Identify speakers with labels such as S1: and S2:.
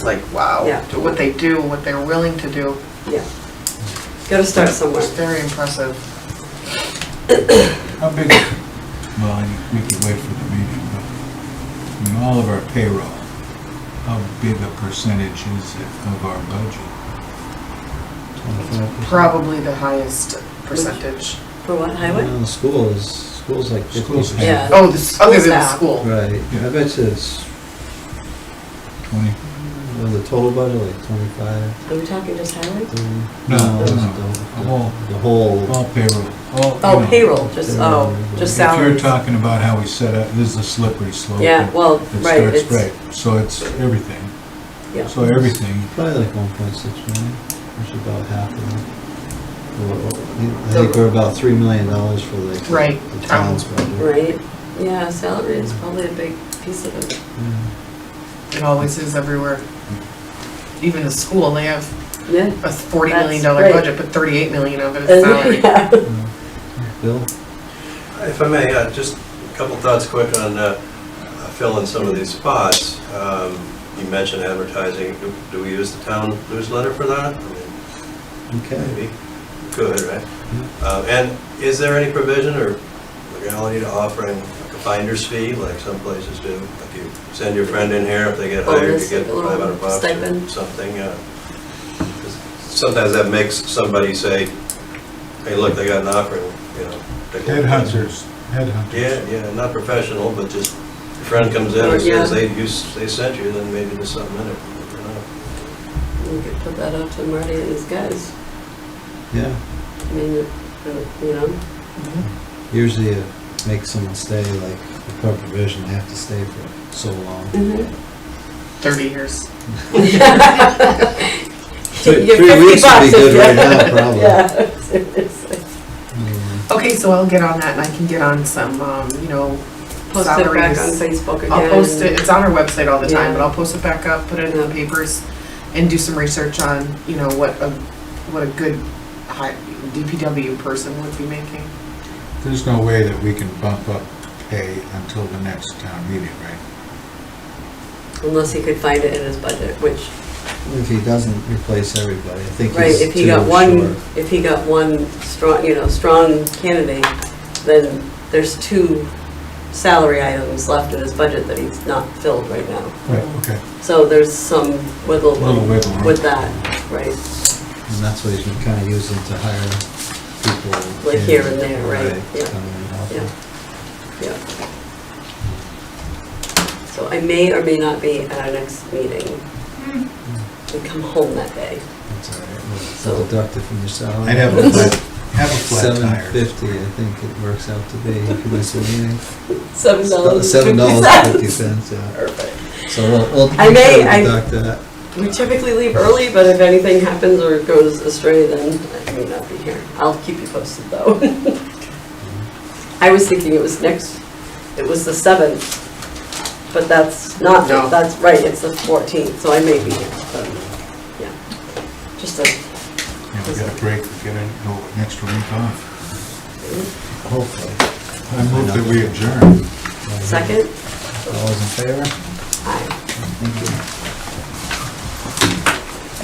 S1: It's like, wow,
S2: Yeah.
S1: to what they do, what they're willing to do,
S2: yeah. Gotta start somewhere.
S1: it's very impressive.
S3: How big, well, you- we could wait for the meeting, but in all of our payroll, how big a percentage is it of our budget?
S1: Probably the highest percentage.
S2: For what, highway?
S4: Well, the School is, school's like fifty
S3: School's
S4: percent.
S2: Yeah.
S1: Oh, this, other than the
S2: School's
S1: school.
S4: Right, I bet you it's,
S3: Twenty?
S4: well, the total budget, like twenty-five,
S2: Are we talking just highway?
S4: thirty?
S3: No, no,
S4: it's
S3: no.
S4: The
S3: The whole-
S4: the whole.
S3: All payroll, all. you
S2: Oh,
S3: know,
S2: payroll, just, oh, just
S3: If you're
S2: salaries.
S3: talking about how we set up, this is a slippery slope.
S2: Yeah, well,
S3: It
S2: right,
S3: starts
S2: it's-
S3: right, so it's everything,
S2: Yeah.
S3: so everything,
S4: Probably like one point six million, which is about half of it. Well, I
S1: So-
S4: think we're about three million dollars for like. the-
S1: Right,
S4: The
S1: town.
S4: town's budget.
S2: Right, yeah, salary is probably a big piece of it.
S4: Yeah.
S1: It always is everywhere. Even the school, they have
S2: Yeah.
S1: a forty million
S2: That's
S1: dollar
S2: right.
S1: budget, but thirty-eight million of it is salary.
S4: Bill?
S5: If I may, uh, just a couple thoughts quick on uh, filling some of these spots. Um, You mentioned advertising, Do- do we use the town newsletter for that? I mean,
S4: Okay.
S5: Maybe, good, right? Uh, And is there any provision or legality to offering like a finder's fee, like some places do? Like you send your friend in here, if they get hired, you
S2: Bonus,
S5: get
S2: like Oh, a little
S5: 500 bucks or
S2: stipend.
S5: something. uh, 'cause Sometimes that makes somebody say, hey, look, they got an offering, you know. take a look at it."
S3: headhunters, headhunters.
S5: Yeah, yeah, not professional, but just, a friend comes in and
S2: Yeah.
S5: says they, you, s- they sent you, then maybe there's something in it. you know.
S2: We could put that out to Marty and his guys.
S4: Yeah,
S2: I mean, uh, you know,
S4: usually it makes someone stay, like, the court provision, they have to stay for so long. Mm-hmm.
S1: Thirty years.
S4: Three-
S2: You get
S4: three
S2: 50
S4: weeks would
S2: bucks
S4: be
S2: if
S4: good
S2: you-
S4: right now, probably.
S2: Yeah, seriously.
S1: Mm-hmm.
S4: Mm,
S1: Okay, so I'll get on that and I can get on some, um, you know,
S2: Post it back on
S1: salaries.
S2: Facebook again.
S1: I'll post it, it's on our website all the time,
S2: Yeah.
S1: but I'll post it back up, put it in the papers, and do some research on, you know, what a, what a good hi- DPW person would be making.
S3: There's no way that we can bump up pay until the next town meeting, right?
S2: Unless he could find it in his budget, which,
S4: If he doesn't replace everybody, I think
S2: right,
S4: he's
S2: if he
S4: too
S2: got one,
S4: short.
S2: if he got one strong, you know, strong candidate, then there's two salary items left in his budget that he's not filled right now.
S3: Right. Okay,
S2: So there's some wiggle
S3: Little
S2: room
S3: wiggle room.
S2: with that, right?
S4: And that's what he's been kind of using to hire people.
S2: Like
S4: in,
S2: here and there, right, yeah.
S4: come in and help.
S2: Yeah, yeah. So I may or may not be at our next meeting. We come home that day.
S4: That's all right,
S2: So-
S4: well, it's deducted from your salary.
S3: I'd have a flat, have a flat
S4: Seven
S3: tire.
S4: fifty, I think it works out to be, if you miss a meeting.
S2: Seven dollars.
S4: Seven dollars and fifty cents, yeah.
S2: Perfect.
S4: So we'll, we'll
S2: I
S4: we'll
S2: may- I-
S4: deduct that.
S2: We typically leave early, but if anything happens or goes astray, then I may not be here. I'll keep you posted, though. I was thinking it was next, it was the seventh, but that's not,
S1: No.
S2: that's right, it's the fourteenth, so I may be here, but, yeah. Just a
S3: Yeah, we got a break, we get a, no, next week off.
S4: Hopefully.
S3: I move that we adjourn.
S2: second.
S4: All those in favor?
S2: Aye.
S4: Thank you.